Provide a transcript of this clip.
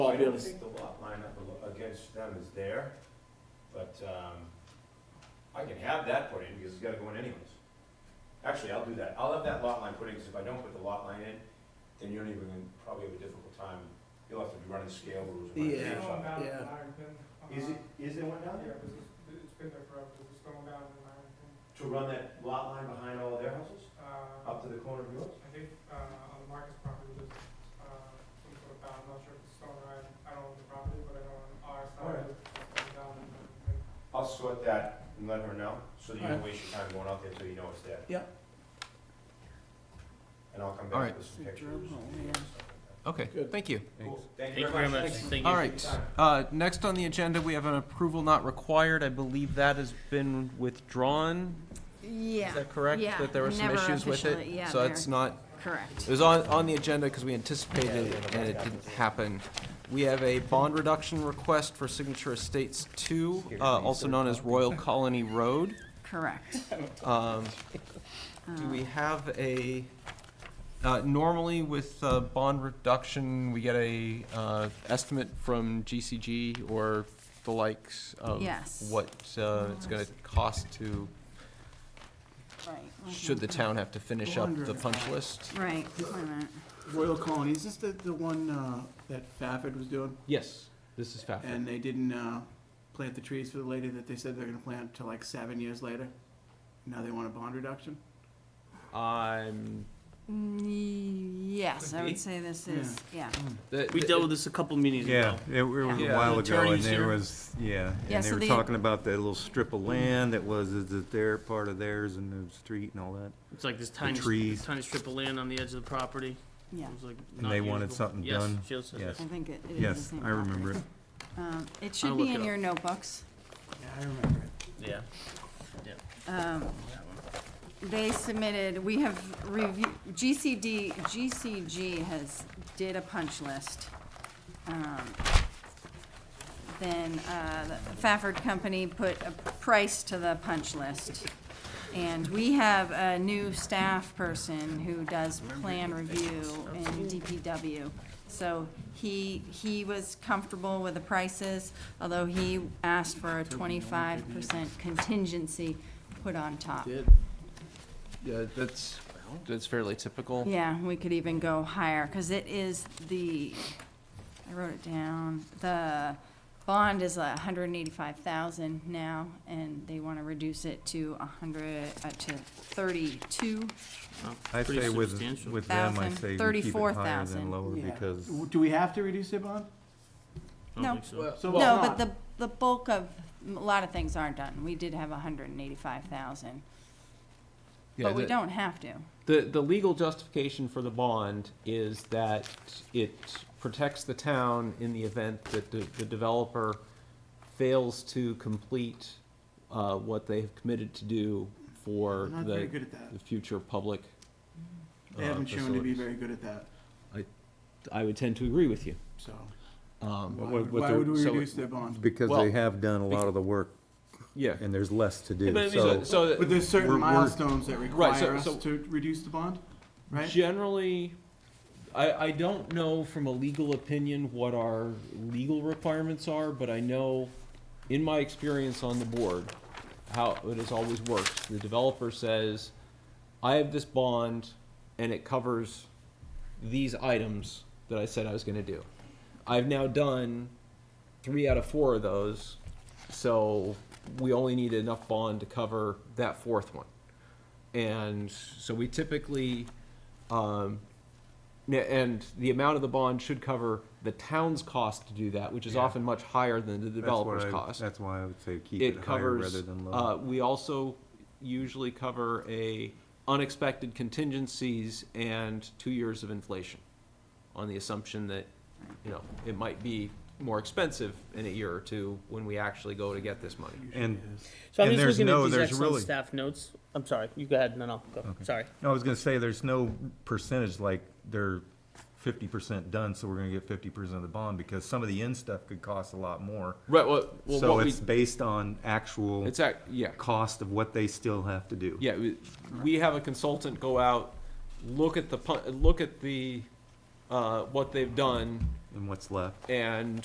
I'll I be able don't to, think the lot line up al- against them is there, but, um, I can have that put in because it's gotta go in anyways. Actually, I'll do that. I'll have that lot line put in, because if I don't put the lot line in, then you're not even gonna probably have a difficult time. You'll have to be running scale rules. and running Yeah, tape on it. yeah. Is it, is there one uh-huh. Yeah, down there? because it's, it's been there forever, because it's going down in Ironton. To run that lot line behind all their houses, Uh, up to the corner of yours? I think, uh, on the Marcus property, there's, uh, some sort of bound, I'm not sure if it's stone or, iron. I don't own the property, but I know on our side, Alright. it's going down in Ironton. I'll sort that and let her know, so that you don't Alright. waste your time going out there until you know it's there. Yeah. And I'll come Alright. back with some pictures. and stuff like that. Okay, Good. thank you. Cool. Thank Thank you very much. Thank All you. right, uh, next on the agenda, we have an approval not required. I believe that has been withdrawn. Yeah. Is that correct? Yeah, That there were some never issues with it? officially- yeah, So it's they're- not, Correct. it was on, on the agenda because we anticipated it and it didn't happen. We have a bond reduction request for Signature Estates Two, uh, also known as Royal Colony Road. Correct. Um, Do we have a, uh, normally with uh, bond reduction, we get a uh, estimate from GCG or the likes of Yes. what uh, it's going to cost to, Right. should the town have to finish up the Wondering. punch list? Right, wait a minute. Royal Colony, is this the, the one, uh, that Fafford was doing? Yes, this is And they didn't, uh, plant the trees for the lady that they said they're gonna plant till like seven years later? Now they want a bond reduction? I'm, Mm, Yes, I Could be. would say this is, yeah. that- We dealt with this a couple meetings Yeah, ago. it was Yeah. Yeah. a while ago, and Attorneys there here. was, yeah, Yeah, and they so were the- talking about that little strip of land that was, is it their part of theirs and the street and all that? It's like this tiny, trees. this tiny strip of land on the edge of the property. Yeah, It was like And not they wanted usable. something Yes, done. Sheila said Yes. I think it it is the Yes, same. I remember it. property. Um, It I'll should look be in it your notebooks. Yeah, I remember it. that. Yeah. Um, They submitted, we have reviewed, GCD, GCG has, did a punch list. Um, Then uh, the Fafford Company put a price to the punch list. And we have a new staff person who does plan review in DPW. So he, he was comfortable with the prices, although he asked for a twenty-five percent contingency put on top. Did. Yeah, that's, that's fairly typical. Yeah, we could even go higher, because it is the, I wrote it down, the bond is a hundred and eighty-five thousand now, and they want to reduce it to a hundred, uh, to thirty-two. Well, I pretty say with, substantial. with them, I Thousand, say we keep it higher 34,000. than lower Yeah. because W- Do we have to reduce their bond? I No. don't think so. So No, it's not. but the, the bulk of, a lot of things aren't done. We did have a hundred and eighty-five thousand, Yeah, but we that- don't have to. The, the legal justification for the bond is that it protects the town in the event that the, the developer fails to complete, uh, what they have committed to do for They're Not very the, good at that. the future public. They uh, haven't shown to be facilities. very good at that, I would tend to agree with you. so Um, why what- would what why the- would we so- reduce their bond? because Well, they have done a lot of the work Yeah. and there's less to But I do, mean, so. so, so that- But there's certain We're- we're- milestones that so- require us so- to reduce the bond, right? Generally, I, I don't know from a legal opinion what our legal requirements are, but I know in my experience on the board, how it has always worked. The developer says, I have this bond and it covers these items that I said I was gonna do. I've now done three out of four of those, so we only need enough bond to cover that fourth one. And so we typically, um, n- and the amount of the bond should cover the town's cost to do that, which is Yeah. often much higher than the that's developer's why I- cost. That's why I would say keep it It higher rather covers, than uh, lower. we also usually cover a unexpected contingencies and two years of inflation on the assumption that, you know, it might be more expensive in a year or two when we actually go to get this money. And, So I'm And just there's looking no- at these there's excellent really- staff notes. I'm sorry, you go ahead, no, no, go, sorry. no, I was gonna say, there's no percentage like they're fifty percent done, so we're gonna get fifty percent of the bond because some of the end stuff could cost a lot more. Right, well, well, So what we, it's based on actual it's, act- yeah, cost of what they still have to do. Yeah, we- we have a consultant go out, look at the, pu- look at the, uh, what they've done, and what's left. And